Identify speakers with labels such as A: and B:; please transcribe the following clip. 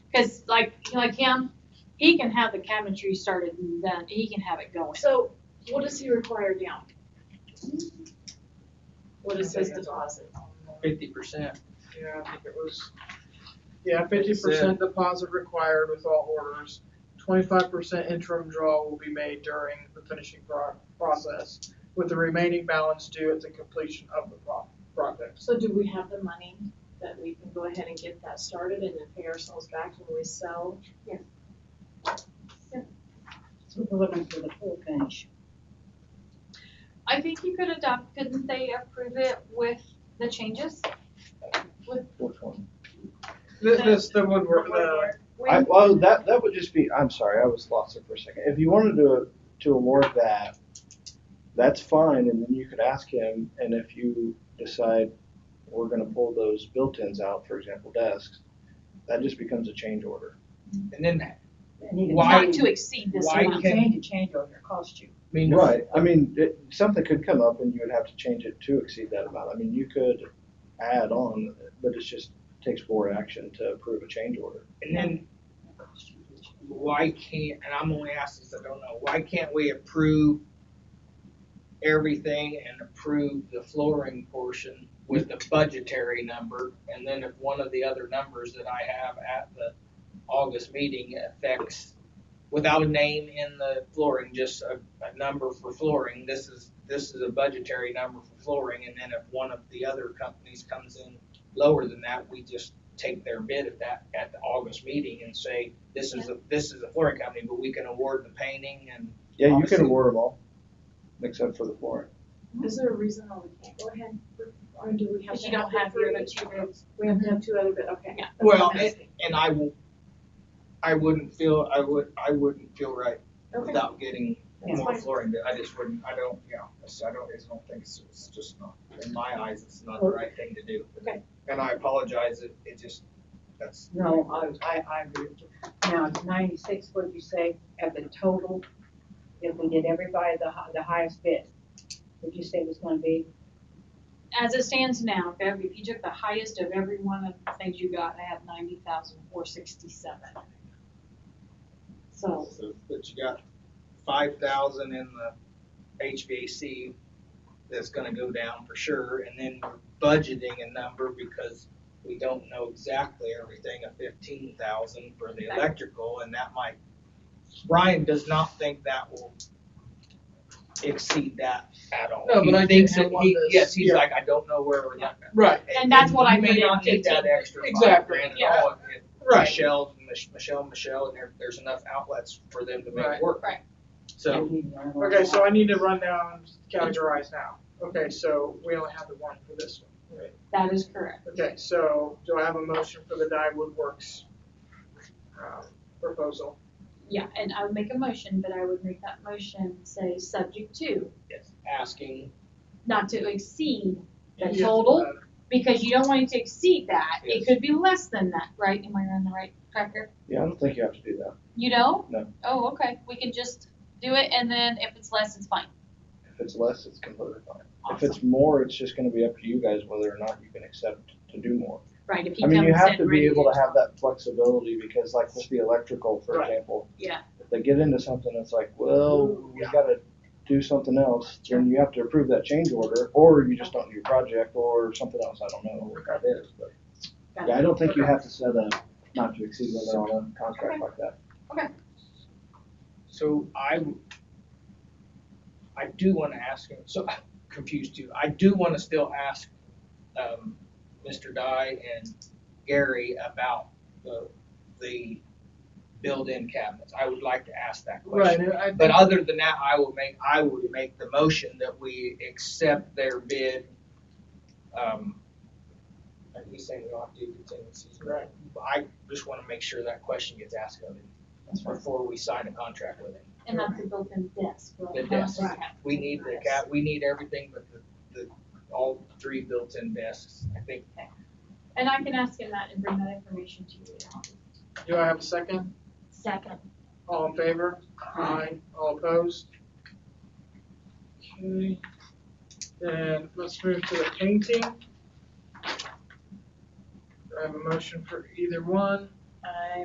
A: Cause like, like him, he can have the cabinetry started and done, he can have it going.
B: So what does he require down? What is his deposit?
C: fifty percent.
D: Yeah, I think it was, yeah, fifty percent deposit required with all orders. Twenty-five percent interim draw will be made during the finishing pro- process, with the remaining balance due at the completion of the pro- project.
B: So do we have the money that we can go ahead and get that started and then pay ourselves back when we sell?
E: So we're looking for the full finish.
A: I think you could adopt, couldn't they approve it with the changes?
F: Which one?
D: This, this, the woodwork, the,
F: I, well, that, that would just be, I'm sorry, I was lost there for a second. If you wanted to, to award that, that's fine, and then you could ask him, and if you decide we're gonna pull those built-ins out, for example, desks, that just becomes a change order.
C: And then, I
E: And you can
C: Why-
A: Not to exceed this
C: why
A: amount.
C: can't-
E: Change, a change order, cost you.
C: mean,
F: Right, I mean, it, something could come up and you would have to change it to exceed that amount. I mean, you could add on, but it's just, takes board action to approve a change order.
C: and then why can't, and I'm only asking because I don't know, why can't we approve everything and approve the flooring portion with the budgetary number? And then if one of the other numbers that I have at the August meeting affects, without a name in the flooring, just a, a number for flooring, this is, this is a budgetary number for flooring. And then if one of the other companies comes in lower than that, we just take their bid at that, at the August meeting and say, this is, a this is a flooring company, but we can award the painting and.
F: Yeah, you can
C: Obviously.
F: award them all, except for the flooring.
B: Is there a reason why we can't go ahead, or do we have
A: Cause
B: to?
A: you don't have your other two rooms.
B: We have to have two other, but okay.
A: Yeah.
B: That's what I'm
C: Well,
B: asking.
C: And I will, I wouldn't feel, I would, I wouldn't feel right
B: Okay.
C: without getting
E: Yeah.
C: more flooring, but I just wouldn't, I don't, you know, it's- I don't, I just don't think it's, it's just not, in my eyes, it's not the right thing to do.
B: Okay.
C: And I apologize, it, it just, that's.
E: No, I, I, I agree with you. Now, ninety-six, what'd you say, at the total, if we did everybody the hi- the highest bid, would you say it was gonna be?
A: As it stands now, if every- if you took the highest of every one of the things you got, I have ninety thousand four sixty-seven. So,
C: So, But you got five thousand in the HVAC that's gonna go down for sure, and then we're budgeting a number because we don't know exactly everything, a fifteen thousand for the
A: Right.
C: electrical, and that might, Brian does not think that will exceed that at all.
D: No, but
C: He
D: I did
C: thinks that
D: have one
C: he-
D: that's-
C: Yes, he's
D: yeah.
C: like, I don't know where we're at.
D: right,
A: And that's what I
C: You may
A: put in
C: not need that
A: 15.
C: extra five
D: Exactly,
C: grand at
D: yeah.
C: all if-
D: right.
C: Michelle, Mich- Michelle, Michelle, and there, there's enough outlets for them to make
D: Right.
C: work.
A: Right.
C: So
D: Okay, so I need to run down, categorize now. Okay, so we only have the one for this one. right?
A: that is correct.
D: Okay, so do I have a motion for the Dye Woodworks um, proposal?
A: Yeah, and I would make a motion, but I would make that motion say subject to,
C: it's asking,
A: not to exceed the
D: Yes,
A: total,
D: uh,
A: because you don't want it to exceed that. It
C: Yes.
A: could be less than that, right? Am I on the right track here?
F: Yeah, I don't think you have to do that.
A: You know?
F: No.
A: Oh, okay. We can just do it and then if it's less, it's fine.
F: If it's less, it's completely fine. If it's more, it's just gonna be up to you guys whether or not you can accept to do more.
A: Right, if he
F: I
A: comes in
F: mean, you have to
A: ready
F: be able to have that flexibility because like with the electrical, for
D: Right.
F: example.
A: Yeah.
F: If they get into something that's like, well, we
D: Yeah.
F: gotta do something else, then you have to approve that change order, or you just don't do your project, or something else, I don't know what that is, but.
A: Got
F: Yeah, I don't think you
D: Okay.
F: have to set a not to exceed limit on a contract like that.
C: so I, I do wanna ask him, so I'm confused too, I do wanna still ask, um, Mr. Dye and Gary about the, the built-in cabinets, I would like to ask that
D: Right,
C: question.
D: and I
C: But
D: think,
C: other than that, I will make, I would make the motion that we accept their bid, um, like you saying we don't have to do contingencies, right?
D: right,
C: I just wanna make sure that question gets asked of him before we sign a contract with him.
A: And that's a built-in desk,
C: The
A: right?
C: desk.
A: Right.
C: We need the cat, we need everything but the, the, all three built-in desks, I think.
A: And I can ask him that and bring that information to you.
D: do I have a second?
A: Second.
D: All in favor? Aye. All opposed? Okay, then let's move to the painting. Do I have a motion for either one?
B: I